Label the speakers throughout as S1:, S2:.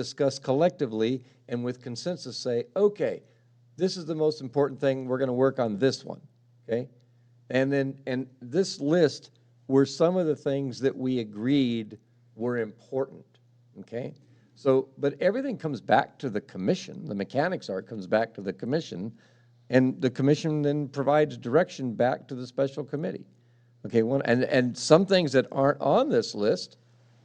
S1: discuss collectively and with consensus say, okay, this is the most important thing, we're gonna work on this one, okay? And then, and this list were some of the things that we agreed were important, okay? So, but everything comes back to the commission, the mechanics are, comes back to the commission, and the commission then provides direction back to the special committee. Okay, one, and, and some things that aren't on this list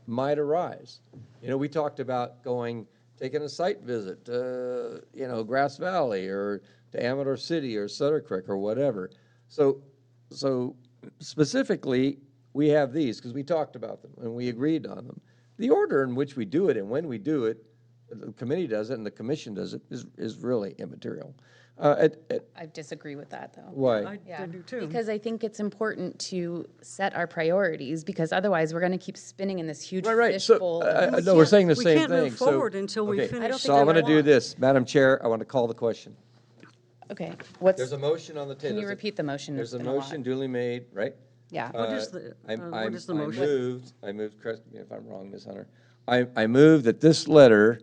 S1: might arise. You know, we talked about going, taking a site visit to, you know, Grass Valley or to Amador City or Sutter Creek or whatever. So, so specifically, we have these because we talked about them and we agreed on them. The order in which we do it and when we do it, the committee does it and the commission does it is, is really immaterial. Uh, it, it,
S2: I disagree with that, though.
S1: why?
S2: Yeah,
S3: I do too.
S2: Because I think it's important to set our priorities, because otherwise, we're going to keep spinning in this huge
S1: Right, right, so,
S2: fishbowl.
S1: I-
S2: of-
S1: I- I know, we're saying the
S3: we
S1: same thing,
S3: can't move
S1: so-
S3: forward until we
S1: okay,
S3: finish I don't
S1: So
S2: think
S1: I'm
S2: I
S1: gonna do
S2: want-
S1: this, Madam Chair, I want to call the question.
S2: Okay, what's,
S1: There's a motion on the table.
S2: can you repeat the motion?
S1: There's a
S2: It's been a lot.
S1: motion duly made, right?
S2: yeah.
S3: What
S1: Uh,
S3: is the-
S1: I'm-
S3: uh, what
S1: I'm-
S3: is the motion?
S1: I moved, I moved, correct me if I'm wrong, Ms. Hunter. I, I moved that this letter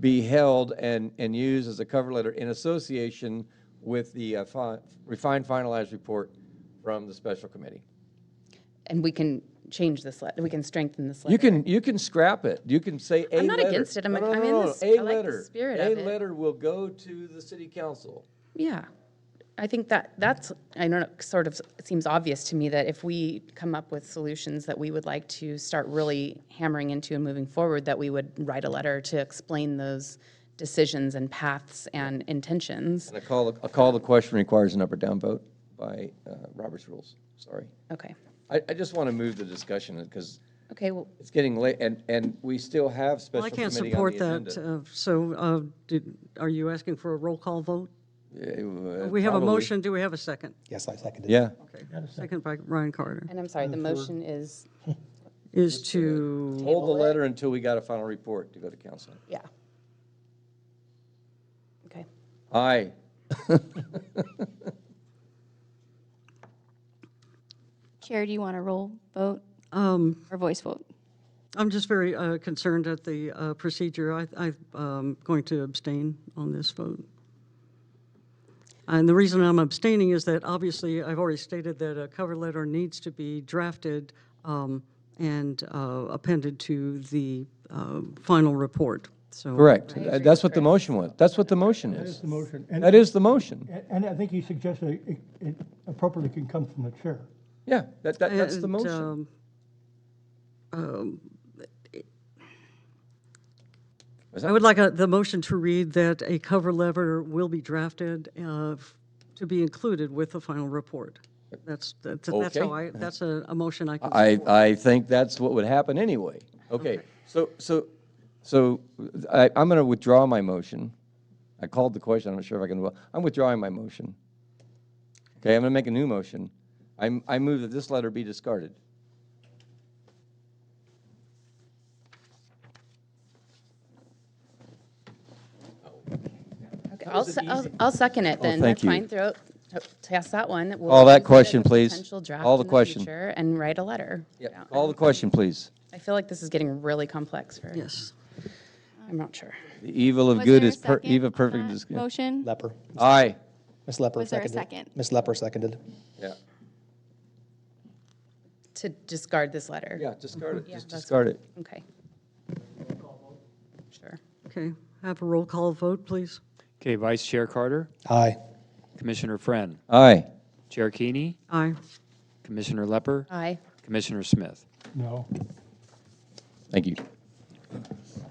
S1: be held and, and used as a cover letter in association with the uh, fi- refined finalized report from the special committee.
S2: And we can change this, let- we can strengthen this letter.
S1: You can, you can scrap it. You can say a letter.
S2: I'm not against it. I'm-
S1: No, no,
S2: I'm
S1: no,
S2: in
S1: no,
S2: this-
S1: no. A
S2: I like the
S1: letter.
S2: spirit of
S1: A
S2: it.
S1: letter will go to the city council.
S2: Yeah, I think that, that's, I don't know, sort of seems obvious to me that if we come up with solutions that we would like to start really hammering into and moving forward, that we would write a letter to explain those decisions and paths and intentions.
S1: And a call, a call to question requires an up or down vote by uh, Robert's rules. Sorry.
S2: Okay,
S1: I, I just want to move the discussion because
S2: okay, well,
S1: it's getting late and, and we still have
S3: Well,
S1: special
S3: I can't
S1: committee on
S3: support
S1: the
S3: that,
S1: agenda.
S3: uh, so uh, did- are you asking for a roll call vote?
S1: Uh,
S3: We have a
S1: probably.
S3: motion, do we have a second?
S4: Yes, I seconded it.
S1: Yeah.
S3: Okay. Second by Ryan Carter,
S2: and I'm sorry, the motion is,
S3: is to,
S1: Hold the letter until we got a final report to go to council.
S2: yeah. Okay,
S1: Aye.
S5: Chair, do you want a roll vote
S3: um,
S5: or voice vote?
S3: I'm just very uh, concerned at the uh, procedure. I- I'm going to abstain on this vote. And the reason I'm abstaining is that obviously, I've already stated that a cover letter needs to be drafted um, and uh, appended to the uh, final report, so.
S1: Correct. That's what the motion was. That's what the motion is.
S6: the motion. And-
S1: That is the motion.
S6: And- And I think you suggested it- it appropriately can come from the chair.
S1: Yeah, that, that, that's the
S3: And,
S1: motion.
S3: um,
S1: Was
S3: I would like a- the motion to read that a cover letter will be drafted uh, f- to be included with the final report. That's, that's that's how
S1: Okay.
S3: I, that's a, a motion I can
S1: I,
S3: support.
S1: I think that's what would happen anyway. Okay, so, so, so I, I'm going to withdraw my motion. I called the question, I'm not sure if I can, I'm withdrawing my motion. Okay, I'm going to make a new motion. I, I move that this letter be discarded.
S2: okay, I'll, se- I'll, I'll second it then.
S1: Oh, thank
S2: That's
S1: you.
S2: fine, throw, it- toss that one. We'll
S1: Call that
S2: use it as a
S1: question, please.
S2: Potential draft
S1: Call the
S2: in
S1: question.
S2: future And write a letter.
S1: Yeah,
S2: Yeah.
S1: call the question, please.
S2: I feel like this is getting really complex for,
S3: Yes.
S2: I'm not sure.
S1: The evil of
S5: Was
S1: good
S5: there a
S1: is, per-
S5: second
S1: evil
S5: on
S1: perfect
S5: that
S1: is good.
S5: Motion?
S4: Leper.
S1: Aye.
S4: Ms. Leper
S5: Was there a
S4: seconded.
S5: second?
S4: Ms. Leper seconded.
S1: Yeah,
S2: To discard this letter?
S1: yeah, discard it, just
S2: that's-
S1: discard it.
S2: Okay. Sure.
S3: Okay. Have a roll call vote, please.
S7: Okay, Vice Chair Carter,
S4: Aye.
S7: Commissioner Friend,
S1: Aye.
S7: Chair Keeney,
S3: Aye.
S7: Commissioner Lepper,
S2: Aye.
S7: Commissioner Smith.
S6: No.
S1: Thank you.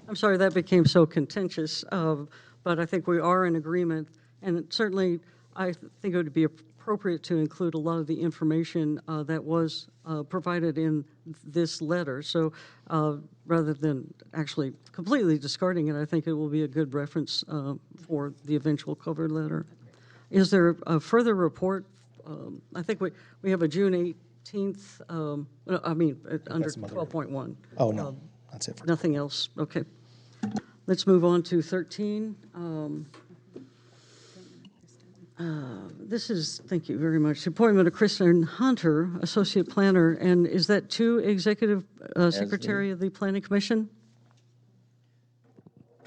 S3: I'm sorry that became so contentious, uh, but I think we are in agreement. And certainly, I think it would be appropriate to include a lot of the information uh, that was uh, provided in this letter. So uh, rather than actually completely discarding it, I think it will be a good reference uh, for the eventual cover letter. Is there a further report? Um, I think we, we have a June 18th, um, no, I mean, uh, under 12.1.
S4: Oh, no. That's it for
S3: Nothing else, okay. Let's move on to 13. Um, uh, This is, thank you very much, appointment of Kristen Hunter, Associate Planner, and is that to Executive uh, Secretary of the Planning Commission?